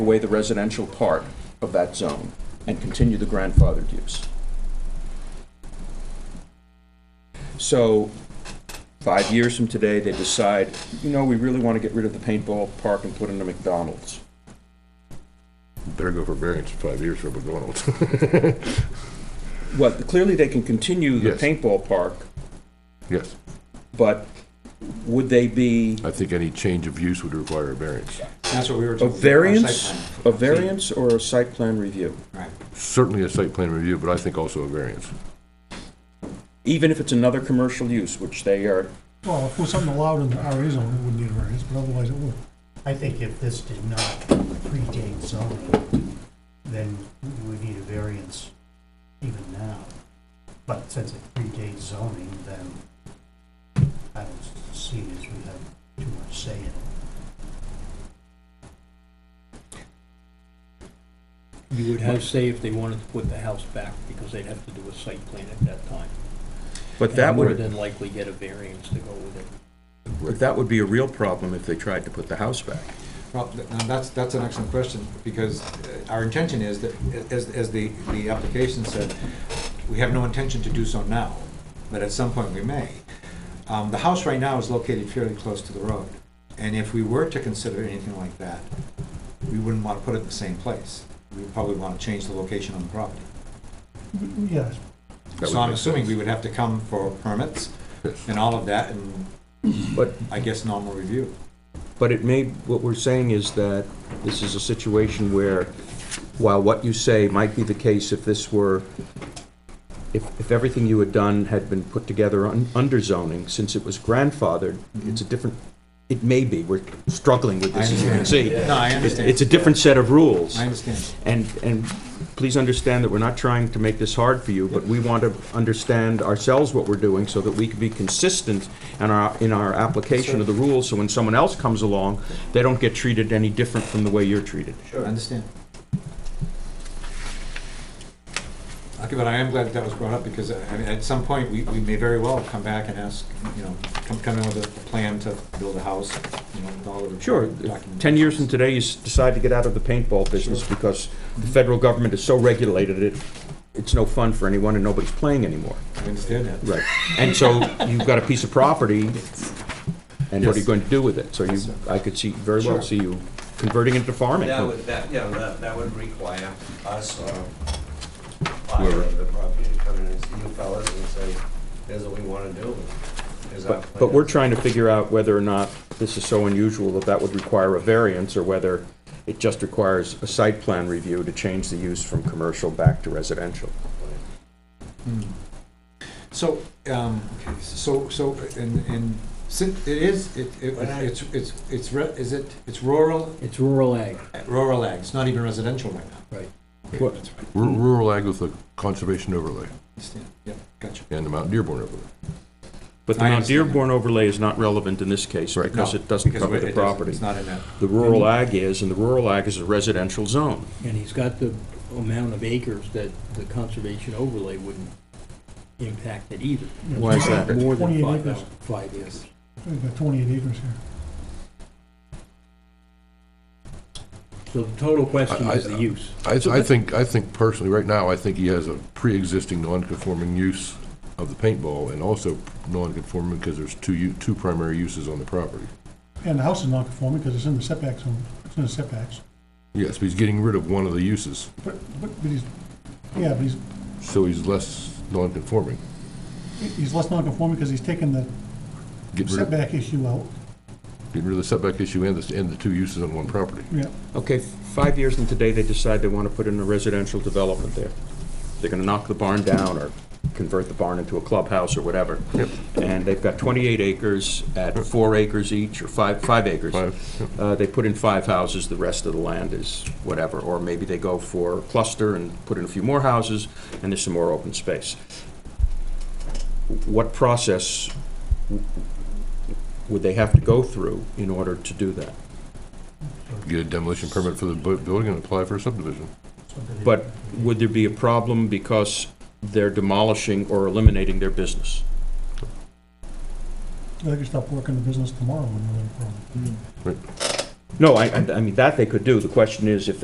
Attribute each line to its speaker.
Speaker 1: away the residential part of that zone and continue the grandfathered use. So, five years from today, they decide, you know, we really want to get rid of the paintball park and put in a McDonald's.
Speaker 2: Better go for variance in five years for McDonald's.
Speaker 1: Well, clearly they can continue the
Speaker 2: Yes.
Speaker 1: paintball park,
Speaker 2: Yes,
Speaker 1: but would they be
Speaker 2: I think any change of use would require a variance.
Speaker 3: That's what we were
Speaker 1: a
Speaker 3: told.
Speaker 1: variance, a
Speaker 3: Our site plan.
Speaker 1: variance or a site plan review?
Speaker 3: Right.
Speaker 2: Certainly a site plan review, but I think also a variance.
Speaker 1: Even if it's another commercial use, which they are,
Speaker 4: Well, if it was something allowed in the RA zone, it wouldn't need a variance, but otherwise it would.
Speaker 5: I think if this did not predate zoning, then we would need a variance even now. But since it predates zoning, then I don't see it as we have too much say in it.
Speaker 6: You would have say if they wanted to put the house back, because they'd have to do a site plan at that time.
Speaker 1: but that
Speaker 6: And More
Speaker 1: would,
Speaker 6: than likely get a variance to go with it.
Speaker 1: but that would be a real problem if they tried to put the house back.
Speaker 3: Well, th- now that's, that's an excellent question, because uh, our intention is that, as, as the, the application said, we have no intention to do so now, but at some point we may. Um, the house right now is located fairly close to the road, and if we were to consider anything like that, we wouldn't want to put it in the same place. We'd probably want to change the location on the property.
Speaker 4: Yes,
Speaker 2: That
Speaker 3: So
Speaker 2: would
Speaker 3: I'm
Speaker 2: make
Speaker 3: assuming
Speaker 2: sense.
Speaker 3: we would have to come for permits
Speaker 2: Yes.
Speaker 3: and all of that, and
Speaker 1: But,
Speaker 3: I guess normal review.
Speaker 1: but it may, what we're saying is that this is a situation where, while what you say might be the case if this were, if, if everything you had done had been put together un- under zoning, since it was grandfathered, it's a different, it may be, we're struggling with this, as you can see.
Speaker 3: No, I
Speaker 1: It's-
Speaker 3: understand.
Speaker 1: It's a different set of rules.
Speaker 3: I understand.
Speaker 1: And, and please understand that we're not trying to make this hard for you, but we want to understand ourselves what we're doing so that we can be consistent in our, in our application of the rules, so when someone else comes along, they don't get treated any different from the way you're treated.
Speaker 3: I understand. Okay, but I am glad that that was brought up, because uh, I mean, at some point, we, we may very well come back and ask, you know, come, come in with a plan to build a house, you know, with all of the.
Speaker 1: Sure, if ten years from today, you s- decide to get out of the paintball business because the federal government has so regulated it, it's no fun for anyone and nobody's playing anymore.
Speaker 3: I understand that.
Speaker 1: Right. And so you've got a piece of property, and what are you going to do with it? So you, I could see, very well
Speaker 3: Sure.
Speaker 1: see you converting it to farming.
Speaker 7: That would, that, yeah, that, that would require us or buyer of the property to come in and see you fellas and say, here's what we wanna do. here's our
Speaker 1: But, but we're
Speaker 7: plan."
Speaker 1: trying to figure out whether or not this is so unusual that that would require a variance, or whether it just requires a site plan review to change the use from commercial back to residential.
Speaker 3: So, um, so, so, and, and, since it is, it, it- it's, it's, it's, re- is it, it's rural,
Speaker 6: It's rural ag,
Speaker 3: rural ag, it's not even residential right now.
Speaker 6: right?
Speaker 1: What-
Speaker 3: That's right,
Speaker 2: Ru- Rural ag with a conservation overlay
Speaker 3: understand, yeah, gotcha.
Speaker 2: and the Mount Dearborn overlay.
Speaker 1: But the
Speaker 3: I
Speaker 1: Mount
Speaker 3: understand that.
Speaker 1: Dearborn overlay is not relevant in this case,
Speaker 2: Right.
Speaker 1: because
Speaker 3: No,
Speaker 1: it doesn't
Speaker 3: because
Speaker 1: cover
Speaker 3: it
Speaker 1: the
Speaker 3: doesn't-
Speaker 1: property.
Speaker 3: It's not in that.
Speaker 1: The rural ag is, and the rural ag is a residential zone.
Speaker 6: And he's got the amount of acres that the conservation overlay wouldn't impact it either.
Speaker 1: Why is that?
Speaker 6: More than
Speaker 4: 28
Speaker 6: five,
Speaker 4: acres.
Speaker 6: five acres.
Speaker 4: we've got twenty-eight acres here.
Speaker 6: So the total question
Speaker 2: I-
Speaker 6: is the use.
Speaker 2: I, I think, I think personally, right now, I think he has a pre-existing non-conforming use of the paintball and also non-conforming because there's two, u- two primary uses on the property.
Speaker 4: And the house is non-conforming because it's in the setback zone, it's in the setbacks.
Speaker 2: Yes, but he's getting rid of one of the uses,
Speaker 4: But, but, but he's, yeah, but he's,
Speaker 2: so he's less non-conforming.
Speaker 4: he's less non-conforming because he's taken the
Speaker 2: Getting rid of,
Speaker 4: setback issue out,
Speaker 2: getting rid of the setback issue and the, and the two uses on one property.
Speaker 4: yeah.
Speaker 1: Okay, f- five years from today, they decide they want to put in a residential development there. They're gonna knock the barn down or convert the barn into a clubhouse or whatever. And they've got twenty-eight acres at four acres each, or five, five acres.
Speaker 2: Five, yep.
Speaker 1: Uh, they put in five houses, the rest of the land is whatever, or maybe they go for a cluster and put in a few more houses, and there's some more open space. What process w- would they have to go through in order to do that?
Speaker 2: Get a demolition permit for the bu- building and apply for a subdivision.
Speaker 5: Something-
Speaker 1: But would there be a problem because they're demolishing or eliminating their business?
Speaker 4: They could stop working the business tomorrow and no problem.
Speaker 1: No, I, I I mean, that they could do. The question is if